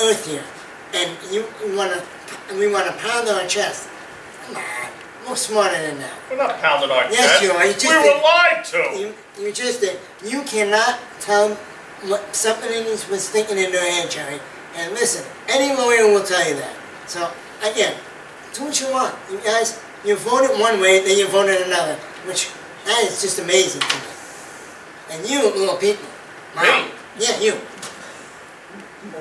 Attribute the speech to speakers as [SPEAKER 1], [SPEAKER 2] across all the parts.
[SPEAKER 1] earth here, and you wanna, we wanna pound our chest. Come on, we're smarter than that.
[SPEAKER 2] We're not pounding our
[SPEAKER 1] Yes,
[SPEAKER 2] chest.
[SPEAKER 1] you are. You just
[SPEAKER 2] We were
[SPEAKER 1] did-
[SPEAKER 2] lied to.
[SPEAKER 1] You, you just, you cannot tell what somebody was thinking in their head, Jerry. And listen, any lawyer will tell you that. So, again, do what you want. You guys, you voted one way, then you voted another, which, that is just amazing to me. And you, little people.
[SPEAKER 2] Me?
[SPEAKER 1] Yeah, you.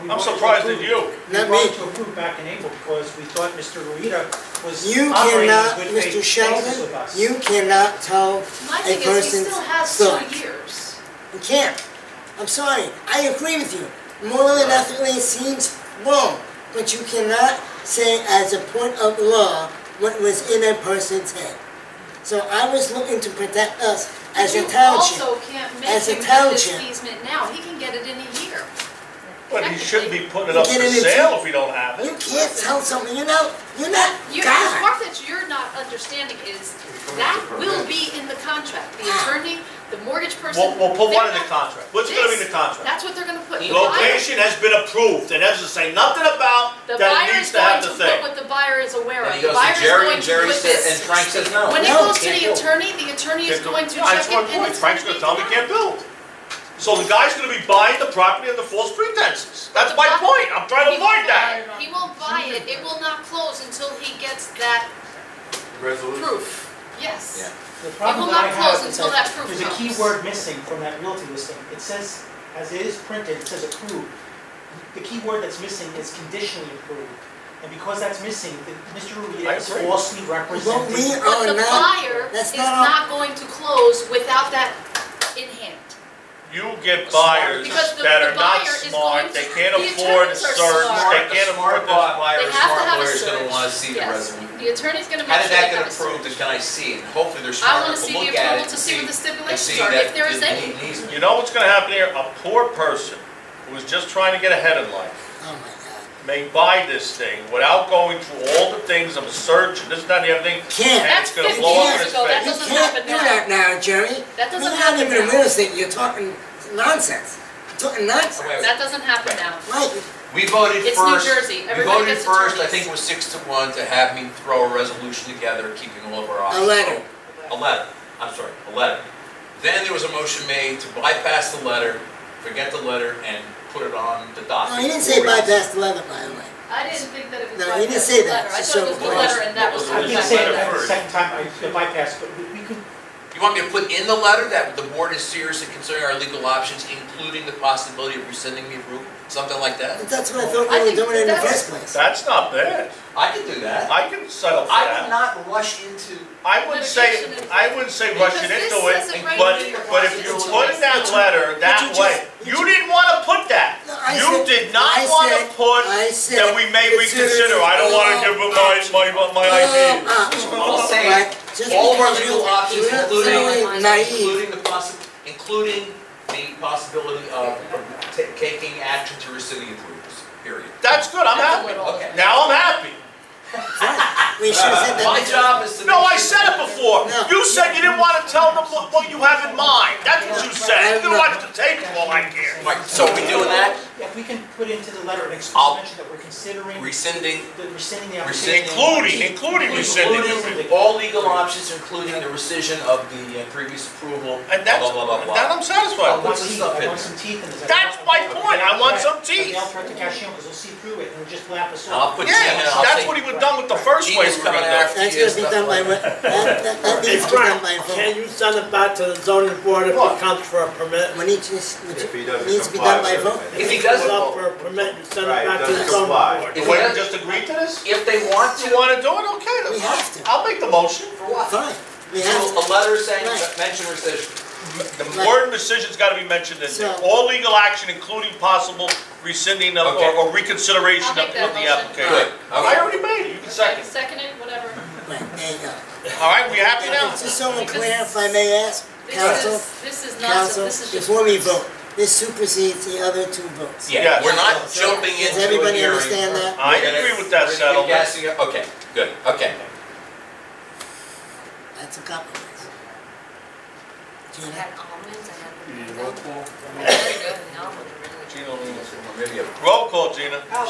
[SPEAKER 2] I'm surprised at you.
[SPEAKER 3] We
[SPEAKER 1] Not
[SPEAKER 3] wanted
[SPEAKER 1] me.
[SPEAKER 3] to approve back in April because we thought Mr. Rueda was
[SPEAKER 1] You
[SPEAKER 3] operating
[SPEAKER 1] cannot,
[SPEAKER 3] in
[SPEAKER 1] Mr.
[SPEAKER 3] good faith basis
[SPEAKER 1] Sheldon,
[SPEAKER 3] with us.
[SPEAKER 1] you cannot tell
[SPEAKER 4] My
[SPEAKER 1] a
[SPEAKER 4] thing is, he
[SPEAKER 1] person's
[SPEAKER 4] still has
[SPEAKER 1] thought.
[SPEAKER 4] two years.
[SPEAKER 1] You can't. I'm sorry. I agree with you. Moral
[SPEAKER 3] Uh,
[SPEAKER 1] and ethically it seems wrong, but you cannot say as a point of law what was in a person's head. So I was looking to protect us as
[SPEAKER 4] But
[SPEAKER 1] a township.
[SPEAKER 4] You also can't make
[SPEAKER 1] As a
[SPEAKER 4] him get this
[SPEAKER 1] township.
[SPEAKER 4] easement now, he can get it in a year.
[SPEAKER 2] But he shouldn't be putting it
[SPEAKER 1] You
[SPEAKER 2] up for
[SPEAKER 1] get it in
[SPEAKER 2] sale if he don't have
[SPEAKER 1] you
[SPEAKER 2] it.
[SPEAKER 1] can't tell something. You know, you're not
[SPEAKER 4] You, the
[SPEAKER 1] God.
[SPEAKER 4] part that you're not understanding is, that will be in the contract,
[SPEAKER 1] Ah.
[SPEAKER 4] the attorney, the mortgage person.
[SPEAKER 5] We'll, we'll put one in
[SPEAKER 4] they're
[SPEAKER 5] the
[SPEAKER 4] not-
[SPEAKER 5] contract. What's gonna be in the
[SPEAKER 4] This-
[SPEAKER 5] contract?
[SPEAKER 4] That's what they're gonna put. The buyer-
[SPEAKER 5] Location has been approved. It doesn't say nothing about
[SPEAKER 4] The
[SPEAKER 5] that it
[SPEAKER 4] buyer
[SPEAKER 5] needs
[SPEAKER 4] is
[SPEAKER 5] to have
[SPEAKER 4] going
[SPEAKER 5] the
[SPEAKER 4] to put
[SPEAKER 5] thing.
[SPEAKER 4] what the buyer is aware of.
[SPEAKER 6] And he
[SPEAKER 4] The
[SPEAKER 6] goes to
[SPEAKER 4] buyer is
[SPEAKER 6] Jerry,
[SPEAKER 4] going
[SPEAKER 6] and
[SPEAKER 4] to
[SPEAKER 6] Jerry
[SPEAKER 4] put
[SPEAKER 6] said,
[SPEAKER 4] this-
[SPEAKER 6] and Frank says no.
[SPEAKER 4] When it
[SPEAKER 1] No,
[SPEAKER 4] goes to
[SPEAKER 6] can't
[SPEAKER 4] the
[SPEAKER 6] do it.
[SPEAKER 4] attorney, the attorney is
[SPEAKER 5] Can't do-
[SPEAKER 4] going to
[SPEAKER 5] Yeah,
[SPEAKER 4] check
[SPEAKER 5] that's
[SPEAKER 4] it
[SPEAKER 5] my
[SPEAKER 4] and
[SPEAKER 5] point.
[SPEAKER 4] it's
[SPEAKER 5] Frank's
[SPEAKER 4] gonna
[SPEAKER 5] gonna tell
[SPEAKER 4] be
[SPEAKER 5] him he
[SPEAKER 4] denied.
[SPEAKER 5] can't build. So the guy's gonna be buying the property under false pretenses. That's my point. I'm trying to
[SPEAKER 4] He won't
[SPEAKER 5] avoid that.
[SPEAKER 4] buy it. He won't buy it, it will not close until he gets that proof, yes.
[SPEAKER 3] The problem
[SPEAKER 4] will
[SPEAKER 3] that I
[SPEAKER 4] not close
[SPEAKER 3] have is
[SPEAKER 4] until
[SPEAKER 3] that
[SPEAKER 4] that proof
[SPEAKER 3] there's a key
[SPEAKER 4] comes.
[SPEAKER 3] word missing from that realty listing. It says, as it is printed, it says approved. The key word that's missing is conditionally approved. And because that's missing, the- Mr.
[SPEAKER 2] I
[SPEAKER 3] Rueda is
[SPEAKER 2] agree.
[SPEAKER 3] falsely
[SPEAKER 1] But we
[SPEAKER 3] representing.
[SPEAKER 4] But
[SPEAKER 1] are
[SPEAKER 4] the
[SPEAKER 1] not.
[SPEAKER 4] buyer
[SPEAKER 1] Oh, that's
[SPEAKER 4] is
[SPEAKER 1] not our-
[SPEAKER 4] not going to close without that in hand.
[SPEAKER 2] You get buyers
[SPEAKER 4] Because the-
[SPEAKER 2] that
[SPEAKER 4] the
[SPEAKER 2] are not
[SPEAKER 4] buyer is
[SPEAKER 2] smart,
[SPEAKER 4] going
[SPEAKER 2] they
[SPEAKER 4] to-
[SPEAKER 2] can't
[SPEAKER 4] the
[SPEAKER 2] afford
[SPEAKER 4] attorneys
[SPEAKER 2] search,
[SPEAKER 4] are smart.
[SPEAKER 2] they
[SPEAKER 6] Smart,
[SPEAKER 2] can't afford
[SPEAKER 6] smart
[SPEAKER 2] this.
[SPEAKER 6] buyer,
[SPEAKER 4] They have to
[SPEAKER 6] smart
[SPEAKER 4] have a
[SPEAKER 6] lawyer's gonna
[SPEAKER 4] search.
[SPEAKER 6] wanna see the
[SPEAKER 4] Yes.
[SPEAKER 6] resume.
[SPEAKER 4] The attorney's gonna make sure
[SPEAKER 6] How did
[SPEAKER 4] they
[SPEAKER 6] that
[SPEAKER 4] have
[SPEAKER 6] get
[SPEAKER 4] a search.
[SPEAKER 6] approved and can I see it? And Hopefully they're
[SPEAKER 4] I
[SPEAKER 6] smart
[SPEAKER 4] wanna
[SPEAKER 6] enough to
[SPEAKER 4] see the
[SPEAKER 6] look at it
[SPEAKER 4] approval
[SPEAKER 6] and
[SPEAKER 4] to see what the
[SPEAKER 6] see, and
[SPEAKER 4] stipulations
[SPEAKER 6] see
[SPEAKER 4] are, if
[SPEAKER 6] that
[SPEAKER 4] there is
[SPEAKER 6] it
[SPEAKER 4] any.
[SPEAKER 6] need- needs
[SPEAKER 2] You know what's gonna happen here? A poor person who is just trying to get ahead in life
[SPEAKER 1] Oh my
[SPEAKER 2] may buy this thing without going through all the things of a search and this, that, and the other thing.
[SPEAKER 1] Can't.
[SPEAKER 2] And it's gonna
[SPEAKER 4] That's
[SPEAKER 2] blow up in
[SPEAKER 1] 50
[SPEAKER 2] his
[SPEAKER 4] years ago. That
[SPEAKER 1] God.
[SPEAKER 2] face.
[SPEAKER 1] You
[SPEAKER 4] doesn't
[SPEAKER 1] can't
[SPEAKER 4] happen
[SPEAKER 1] do
[SPEAKER 4] now.
[SPEAKER 1] that now, Jerry.
[SPEAKER 4] That doesn't
[SPEAKER 1] You're
[SPEAKER 4] happen
[SPEAKER 1] not even in
[SPEAKER 4] now.
[SPEAKER 1] real estate. You're talking nonsense. You're talking nonsense.
[SPEAKER 4] That doesn't happen now.
[SPEAKER 1] Right.
[SPEAKER 6] We voted
[SPEAKER 4] It's New
[SPEAKER 6] first.
[SPEAKER 4] Jersey.
[SPEAKER 6] We
[SPEAKER 4] Everybody
[SPEAKER 6] voted
[SPEAKER 4] gets
[SPEAKER 6] first, I
[SPEAKER 4] attorneys.
[SPEAKER 6] think it was six to one, to have me throw a resolution together, keeping all of our options.
[SPEAKER 1] letter.
[SPEAKER 6] open. A letter, I'm sorry, a letter. Then there was a motion made to bypass the letter, forget the letter, and put it on the docket.
[SPEAKER 1] No, Oh, he didn't say
[SPEAKER 6] for review.
[SPEAKER 1] bypass the leather, by the way.
[SPEAKER 4] I didn't think that it was.
[SPEAKER 1] No, you
[SPEAKER 4] like
[SPEAKER 1] didn't say
[SPEAKER 4] the
[SPEAKER 1] that.
[SPEAKER 4] letter. I
[SPEAKER 1] It's
[SPEAKER 4] thought it
[SPEAKER 1] so
[SPEAKER 4] was the
[SPEAKER 1] gross.
[SPEAKER 4] letter and that was.
[SPEAKER 2] It
[SPEAKER 3] I
[SPEAKER 2] was
[SPEAKER 3] did
[SPEAKER 2] just
[SPEAKER 3] say
[SPEAKER 2] letter
[SPEAKER 3] that the
[SPEAKER 2] first.
[SPEAKER 3] second time, I- the bypass, but we- we could
[SPEAKER 6] You want me to put in the letter that the board is seriously considering our legal options, including the possibility of rescinding the approval, something like that?
[SPEAKER 1] But that's what I thought
[SPEAKER 4] I
[SPEAKER 1] we were
[SPEAKER 4] think
[SPEAKER 1] doing in the
[SPEAKER 4] that's-
[SPEAKER 1] first place.
[SPEAKER 2] That's not bad.
[SPEAKER 6] I could do that.
[SPEAKER 2] I can settle for
[SPEAKER 6] I would
[SPEAKER 2] that.
[SPEAKER 6] not rush into,
[SPEAKER 2] I wouldn't say,
[SPEAKER 4] Litigation is-
[SPEAKER 2] I wouldn't say
[SPEAKER 4] Because
[SPEAKER 2] rushing
[SPEAKER 4] this
[SPEAKER 2] into it,
[SPEAKER 4] says it right
[SPEAKER 2] but,
[SPEAKER 4] here.
[SPEAKER 2] but if you
[SPEAKER 4] It's
[SPEAKER 2] put in that
[SPEAKER 4] just-
[SPEAKER 2] letter that
[SPEAKER 1] But you
[SPEAKER 2] way,
[SPEAKER 1] just-
[SPEAKER 2] you didn't wanna put that.
[SPEAKER 1] No, I
[SPEAKER 2] You
[SPEAKER 1] said-
[SPEAKER 2] did not
[SPEAKER 1] I
[SPEAKER 2] wanna
[SPEAKER 1] said-
[SPEAKER 2] put
[SPEAKER 1] I said
[SPEAKER 2] that we may
[SPEAKER 1] consider
[SPEAKER 2] reconsider, I don't wanna
[SPEAKER 1] all
[SPEAKER 2] give up my, my, my ideas.
[SPEAKER 1] Uh,
[SPEAKER 6] I'll say,
[SPEAKER 1] right, just
[SPEAKER 6] all of our
[SPEAKER 1] because
[SPEAKER 6] legal
[SPEAKER 1] you're
[SPEAKER 6] options,
[SPEAKER 1] not
[SPEAKER 6] including-
[SPEAKER 1] really naive.
[SPEAKER 6] including the possi, including the possibility of ta- taking action to rescind the approvals, period.
[SPEAKER 2] That's good, I'm
[SPEAKER 4] That's a
[SPEAKER 2] happy.
[SPEAKER 4] little-
[SPEAKER 6] Okay.
[SPEAKER 2] Now I'm happy.
[SPEAKER 1] We should have said
[SPEAKER 6] My
[SPEAKER 1] that.
[SPEAKER 6] job is to.
[SPEAKER 2] No, I
[SPEAKER 6] make sure-
[SPEAKER 2] said it before.
[SPEAKER 1] No.
[SPEAKER 2] You said you didn't want to tell them what, what you have in mind. That's what you said. You can watch the tape for all I care.
[SPEAKER 6] Right, so we doing that?
[SPEAKER 3] Yeah, If we can put into the letter an explicit
[SPEAKER 6] I'll-
[SPEAKER 3] mention that we're considering
[SPEAKER 6] Rescinding,
[SPEAKER 3] the rescinding the application.
[SPEAKER 6] Rescinding.
[SPEAKER 2] Including, including rescinding. the
[SPEAKER 6] including all legal options, including the rescission of the uh, previous approval, blah,
[SPEAKER 2] And that's,
[SPEAKER 6] blah, blah, blah,
[SPEAKER 2] that
[SPEAKER 6] blah.
[SPEAKER 2] I'm
[SPEAKER 3] I
[SPEAKER 2] satisfied with.
[SPEAKER 3] want
[SPEAKER 6] What's the
[SPEAKER 3] teeth,
[SPEAKER 6] stuff
[SPEAKER 3] I
[SPEAKER 6] in
[SPEAKER 3] want
[SPEAKER 6] there?
[SPEAKER 3] some teeth in this. I
[SPEAKER 2] That's
[SPEAKER 3] want-
[SPEAKER 2] my point. I want some
[SPEAKER 3] I'll
[SPEAKER 2] teeth.
[SPEAKER 3] try to cash in, 'cause we'll see through it, and it'll just laugh us
[SPEAKER 6] And I'll
[SPEAKER 3] off.
[SPEAKER 6] put Jim in,
[SPEAKER 2] Yes,
[SPEAKER 6] I'll
[SPEAKER 2] that's
[SPEAKER 6] say.
[SPEAKER 2] what he would done with the first way
[SPEAKER 6] Gina's
[SPEAKER 2] we were
[SPEAKER 6] coming
[SPEAKER 2] gonna
[SPEAKER 6] after
[SPEAKER 2] go.
[SPEAKER 6] you,
[SPEAKER 1] That's gonna be
[SPEAKER 6] stuff
[SPEAKER 1] done by,
[SPEAKER 6] like that.
[SPEAKER 1] that, that that needs to be done by vote.
[SPEAKER 7] Can you send it back to the zoning board if it
[SPEAKER 2] What?
[SPEAKER 7] comes for a permit?
[SPEAKER 1] When each, is- which
[SPEAKER 8] If he doesn't
[SPEAKER 1] needs to be
[SPEAKER 8] comply
[SPEAKER 1] done by
[SPEAKER 8] with
[SPEAKER 1] vote.
[SPEAKER 8] it.
[SPEAKER 6] If he
[SPEAKER 7] Comes up
[SPEAKER 6] doesn't,
[SPEAKER 7] for a permit, you send it
[SPEAKER 8] Right,
[SPEAKER 7] back to the
[SPEAKER 8] doesn't
[SPEAKER 7] zoning
[SPEAKER 8] comply.
[SPEAKER 7] board.
[SPEAKER 2] If we had just agreed to this,
[SPEAKER 6] if they want
[SPEAKER 2] if
[SPEAKER 6] to,
[SPEAKER 2] you wanna do it, okay,
[SPEAKER 1] We
[SPEAKER 2] then
[SPEAKER 1] have to.
[SPEAKER 2] I'll make the motion.
[SPEAKER 6] for what?
[SPEAKER 1] Fine, we
[SPEAKER 6] So
[SPEAKER 1] have,
[SPEAKER 6] a letter saying,
[SPEAKER 1] Right.
[SPEAKER 6] mention rescission.
[SPEAKER 2] The word rescission's gotta be mentioned in there.
[SPEAKER 1] So-
[SPEAKER 2] All legal action, including possible rescinding of, or
[SPEAKER 6] Okay.
[SPEAKER 2] or reconsideration
[SPEAKER 4] I'll
[SPEAKER 2] of
[SPEAKER 4] make
[SPEAKER 2] of
[SPEAKER 4] that
[SPEAKER 2] the
[SPEAKER 4] motion.
[SPEAKER 2] application.
[SPEAKER 6] Good,
[SPEAKER 2] I
[SPEAKER 6] okay.
[SPEAKER 2] already made it. You can second.
[SPEAKER 4] Okay, Second it, whatever.
[SPEAKER 1] right, there you go.
[SPEAKER 2] All right, we happy now?
[SPEAKER 1] It's just so we're clear, if I may ask,
[SPEAKER 4] This
[SPEAKER 1] council,
[SPEAKER 4] is, this is
[SPEAKER 1] council,
[SPEAKER 4] nonsense, this is just.
[SPEAKER 1] before we vote, this supersedes the other two votes.
[SPEAKER 6] Yeah,
[SPEAKER 2] Yes.
[SPEAKER 6] we're not jumping into a
[SPEAKER 1] Does
[SPEAKER 6] hearing.
[SPEAKER 1] everybody understand that?
[SPEAKER 2] I
[SPEAKER 6] We're gonna-
[SPEAKER 2] agree with that
[SPEAKER 6] we're gonna
[SPEAKER 2] settlement.
[SPEAKER 6] be guessing it. Okay, good, okay.
[SPEAKER 1] That's a compromise.
[SPEAKER 4] I
[SPEAKER 1] Gina?
[SPEAKER 4] had almonds, I
[SPEAKER 8] You
[SPEAKER 4] had.
[SPEAKER 8] need a roll call?
[SPEAKER 4] Very good, and almond, really.
[SPEAKER 2] Gina,
[SPEAKER 6] Maybe a
[SPEAKER 2] Roll call, Gina.